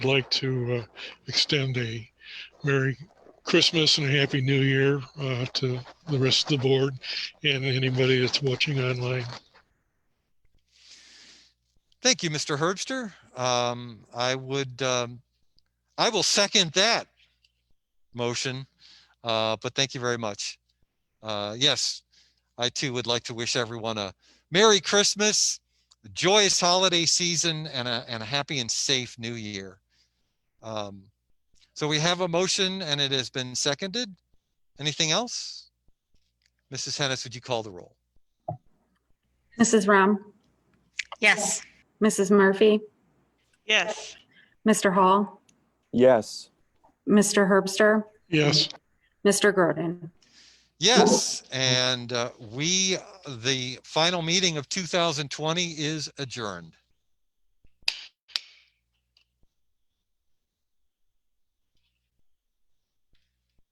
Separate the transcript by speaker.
Speaker 1: I'd like to uh, extend a Merry Christmas and a Happy New Year uh, to the rest of the board and anybody that's watching online.
Speaker 2: Thank you, Mr. Herbster. Um, I would, um, I will second that motion, uh, but thank you very much. Uh, yes, I too would like to wish everyone a Merry Christmas, a joyous holiday season, and a, and a happy and safe new year. Um, so we have a motion and it has been seconded. Anything else? Mrs. Hennis, would you call the roll?
Speaker 3: Mrs. Ram,
Speaker 4: Yes.
Speaker 3: Mrs. Murphy,
Speaker 4: Yes.
Speaker 3: Mr. Hall,
Speaker 5: Yes.
Speaker 3: Mr. Herbster,
Speaker 1: Yes,
Speaker 3: Mr. Groden.
Speaker 2: Yes, and uh, we, the final meeting of 2020 is adjourned.